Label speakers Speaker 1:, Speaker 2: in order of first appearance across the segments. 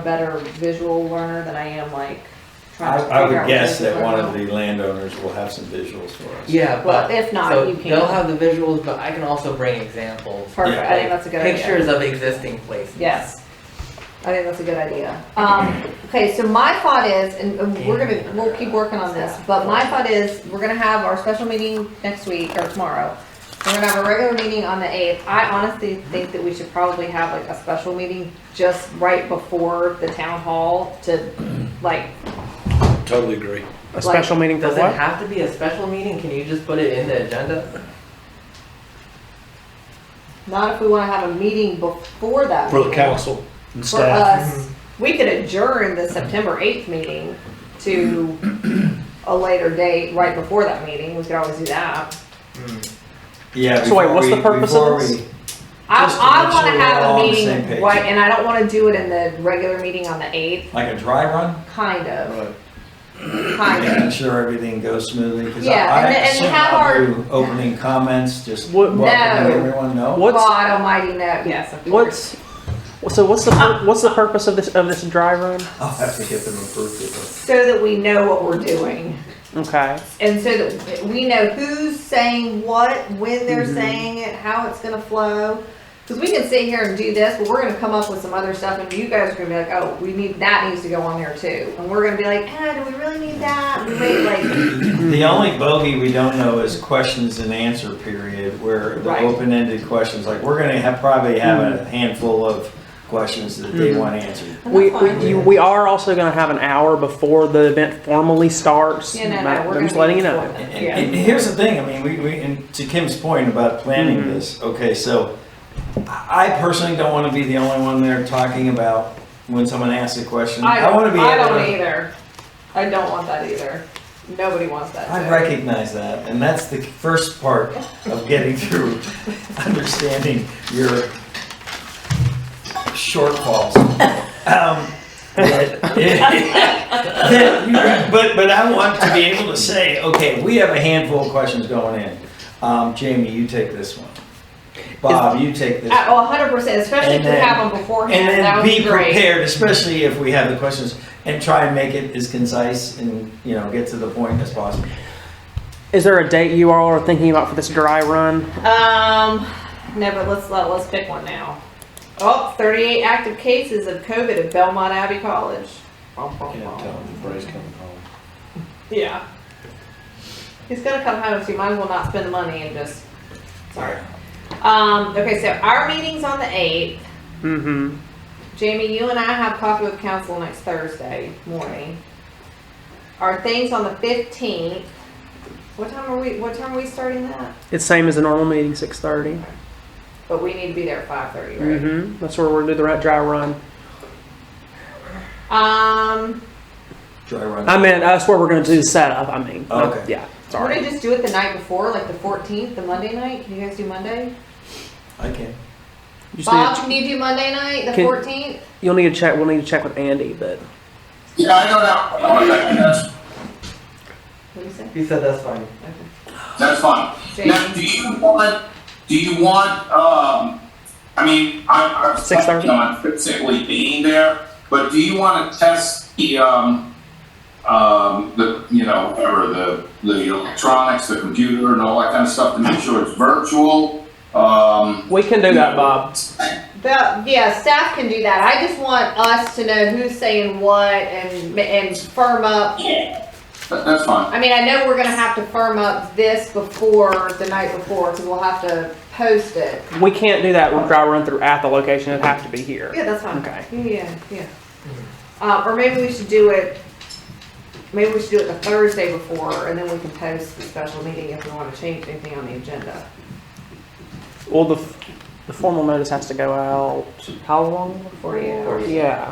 Speaker 1: a better visual learner than I am like
Speaker 2: I,
Speaker 1: trying to
Speaker 2: I
Speaker 1: figure
Speaker 2: would
Speaker 1: out
Speaker 2: guess
Speaker 1: what
Speaker 2: that
Speaker 1: they
Speaker 2: one of
Speaker 1: learn.
Speaker 2: the landowners will have some visuals for us.
Speaker 3: Yeah,
Speaker 1: Well,
Speaker 3: but
Speaker 1: if not,
Speaker 3: so
Speaker 1: you
Speaker 3: they'll
Speaker 1: can.
Speaker 3: have the visuals, but I can also bring examples.
Speaker 1: Perfect. I think that's a good idea.
Speaker 3: Pictures of existing places.
Speaker 1: Yes. I think that's a good idea.
Speaker 4: Um, okay, so my thought is, and and we're gonna, we'll keep working on this, but my thought is, we're gonna have our special meeting next week or tomorrow. We're gonna have a regular meeting on the eighth. I honestly think that we should probably have like a special meeting just right before the town hall to like,
Speaker 5: Totally agree.
Speaker 6: A special meeting for
Speaker 3: Does it
Speaker 6: what?
Speaker 3: have to be a special meeting? Can you just put it in the agenda?
Speaker 4: not if we wanna have a meeting before that.
Speaker 5: For the
Speaker 4: meeting.
Speaker 5: council and
Speaker 4: For uh,
Speaker 5: staff.
Speaker 4: us,
Speaker 2: Mm-hmm.
Speaker 4: we could adjourn the September eighth meeting to a later date, right before that meeting. We could always do that.
Speaker 2: Yeah.
Speaker 6: So wait,
Speaker 2: before
Speaker 6: what's the
Speaker 2: we-
Speaker 6: purpose of
Speaker 2: before
Speaker 6: this?
Speaker 2: we-
Speaker 4: I,
Speaker 2: Just to make
Speaker 4: I
Speaker 2: sure
Speaker 4: want
Speaker 2: we're
Speaker 4: to have
Speaker 2: all on
Speaker 4: a
Speaker 2: the same page.
Speaker 4: meeting, right, and I don't want to do it in the regular meeting on the 8th,
Speaker 2: Like a dry run?
Speaker 4: kind of,
Speaker 2: Right.
Speaker 4: kind of.
Speaker 2: Making sure everything goes smoothly, because I,
Speaker 4: Yeah,
Speaker 2: I
Speaker 4: and then- and we
Speaker 2: assume
Speaker 4: have
Speaker 2: I'll
Speaker 4: our-
Speaker 2: do opening comments, just
Speaker 6: What-
Speaker 2: welcome
Speaker 4: No.
Speaker 2: everyone, no?
Speaker 6: What's-
Speaker 4: God almighty, no, yes, of course.
Speaker 6: What's so? What's the pur- what's the purpose of this of this dry run?
Speaker 2: I'll have to get them approved of
Speaker 4: So that we know what we're doing,
Speaker 6: Okay.
Speaker 4: and so that we know who's saying what, when they're
Speaker 6: Mm-hmm.
Speaker 4: saying it, how it's gonna flow. Because we can sit here and do this, but we're gonna come up with some other stuff, and you guys are gonna be like, oh, we need, that needs to go on there too. And we're gonna be like, eh, do we really need that? We wait, like,
Speaker 2: it. The only bogey we don't know is questions and answer period, where the
Speaker 4: Right.
Speaker 2: open-ended questions, like, we're gonna have, probably have
Speaker 6: Hmm.
Speaker 2: a handful of questions that they want answered.
Speaker 6: We we, you, we are also going to have an hour before the event formally starts.
Speaker 4: you know,
Speaker 6: but
Speaker 4: no, we're
Speaker 6: I'm
Speaker 4: gonna.
Speaker 6: just letting
Speaker 4: be
Speaker 6: you know.
Speaker 4: before
Speaker 2: And-
Speaker 4: that.
Speaker 2: and-
Speaker 4: Yeah.
Speaker 2: And here's the thing, I mean, we, we, and to Kim's point about planning
Speaker 6: Mhm.
Speaker 2: this, okay, so I I personally don't want to be the only one there talking about when someone asks a question.
Speaker 4: I
Speaker 2: I want to
Speaker 4: don't,
Speaker 2: be
Speaker 4: I
Speaker 2: able
Speaker 4: don't
Speaker 2: to,
Speaker 4: either. I don't want that either. Nobody wants that.
Speaker 2: I
Speaker 4: too.
Speaker 2: recognize that, and that's the first part of getting through, understanding your shortfalls. Um, But but- but I want to be able to say, okay, we have a handful of questions going in. Um, Jamie, you take this one. Bob, you take this.
Speaker 4: Uh, oh, hundred percent, especially if
Speaker 2: And
Speaker 4: we
Speaker 2: then-
Speaker 4: have them beforehand,
Speaker 2: And
Speaker 4: that
Speaker 2: then
Speaker 4: would be
Speaker 2: be
Speaker 4: great.
Speaker 2: prepared, especially if we have the questions, and try and make it as concise and, you know, get to the point as possible.
Speaker 6: Is there a date you all are thinking about for this dry run?
Speaker 4: Um, no, but let's, let, let's pick one now. Oh, thirty-eight active cases of COVID at Belmont Abbey College. Bum, bum,
Speaker 5: Can't
Speaker 4: bum.
Speaker 5: tell them the Bray's coming home.
Speaker 4: Yeah. He's gonna come home, so you might as well not spend the money and just, sorry. Um, okay, so our meeting's on the eighth.
Speaker 6: Mm-hmm.
Speaker 4: Jamie, you and I have coffee with council next Thursday morning. Our thing's on the fifteenth. What time are we, what time are we starting that?
Speaker 6: It's same as the normal meeting, six thirty.
Speaker 4: But we need to be there at five thirty, right?
Speaker 6: Mm-hmm. That's where we're gonna do the right dry run.
Speaker 4: Um,
Speaker 2: Dry run.
Speaker 6: I mean, that's where we're going to do the setup. I mean, not-
Speaker 2: Okay.
Speaker 6: yeah.
Speaker 4: we're
Speaker 6: Sorry.
Speaker 4: gonna just do it the night before, like the fourteenth, the Monday night? Can you guys do Monday?
Speaker 2: I can.
Speaker 6: You just need
Speaker 4: Bob,
Speaker 6: to-
Speaker 4: can you do Monday night, the
Speaker 6: Can-
Speaker 4: fourteenth?
Speaker 6: you'll need to check. We'll need to check with Andy, but
Speaker 7: Yeah, I know that. One second, That's,
Speaker 4: What do you say?
Speaker 3: He said that's fine.
Speaker 7: that's fine. Now, do
Speaker 4: Jamie?
Speaker 7: you want, do you want, um, I mean, I, I'm
Speaker 6: Six thirty?
Speaker 7: planning on physically being there, but do you want to test the, um, um, the, you know, whatever, the, the electronics, the computer and all that kind of stuff to make sure it's virtual? Um,
Speaker 6: we can do that, Bob.
Speaker 4: The, yeah, staff can do that. I just want us to know who's saying what and, and firm up
Speaker 7: that, that's fine.
Speaker 4: I mean, I know we're gonna have to firm up this before, the night before, because we'll have to post it.
Speaker 6: We can't do that dry run through at the location. It'd have to be here.
Speaker 4: Yeah, that's fine.
Speaker 6: Okay.
Speaker 4: Yeah, yeah. Uh, or maybe we should do it, maybe we should do it the Thursday before, and then we can post the special meeting if we wanna change anything on the agenda.
Speaker 6: Well, the, the formal notice has to go out. How long?
Speaker 4: Forty-eight hours.
Speaker 6: Yeah,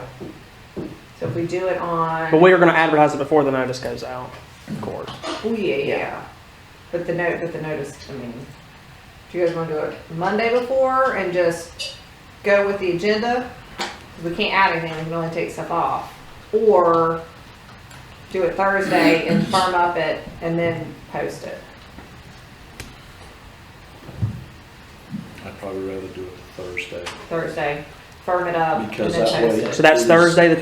Speaker 4: So if we do it on,
Speaker 6: but we are going to advertise it before the notice goes out, of course.
Speaker 4: oh, yeah, yeah. But the note, but the notice, I mean, do you guys wanna do it Monday before and just go with the agenda? 'Cause We can't add anything, we can only take stuff off. Or do it Thursday and firm up it and then post it.
Speaker 5: I'd probably rather do it Thursday.
Speaker 4: Thursday, firm it up and then
Speaker 5: Because
Speaker 4: post
Speaker 5: that way-
Speaker 4: it.
Speaker 6: So that's
Speaker 5: Please.
Speaker 6: Thursday, the